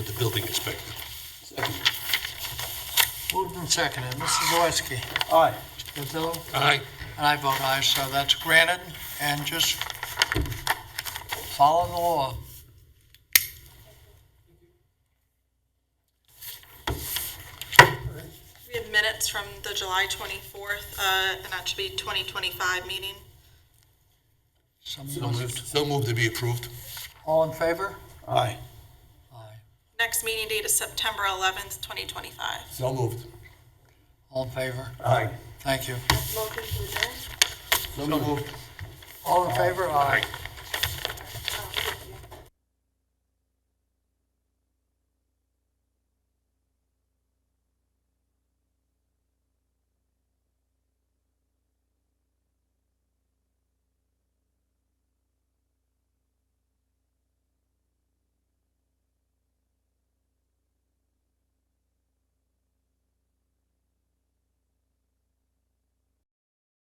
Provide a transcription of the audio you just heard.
with the building inspector. Moved and seconded. Mrs. Zawiski. Aye. Mr. Patillo. Aye. And I vote aye, so that's granted, and just follow the law. We have minutes from the July 24th, uh, and that should be 2025 meeting. So Someone- moved. So moved to be approved. All in favor? Aye. Aye. Next meeting date is September 11th, 2025. So moved. All in favor? Aye. Thank you. Motion to adjourn? So moved. All in favor? Aye.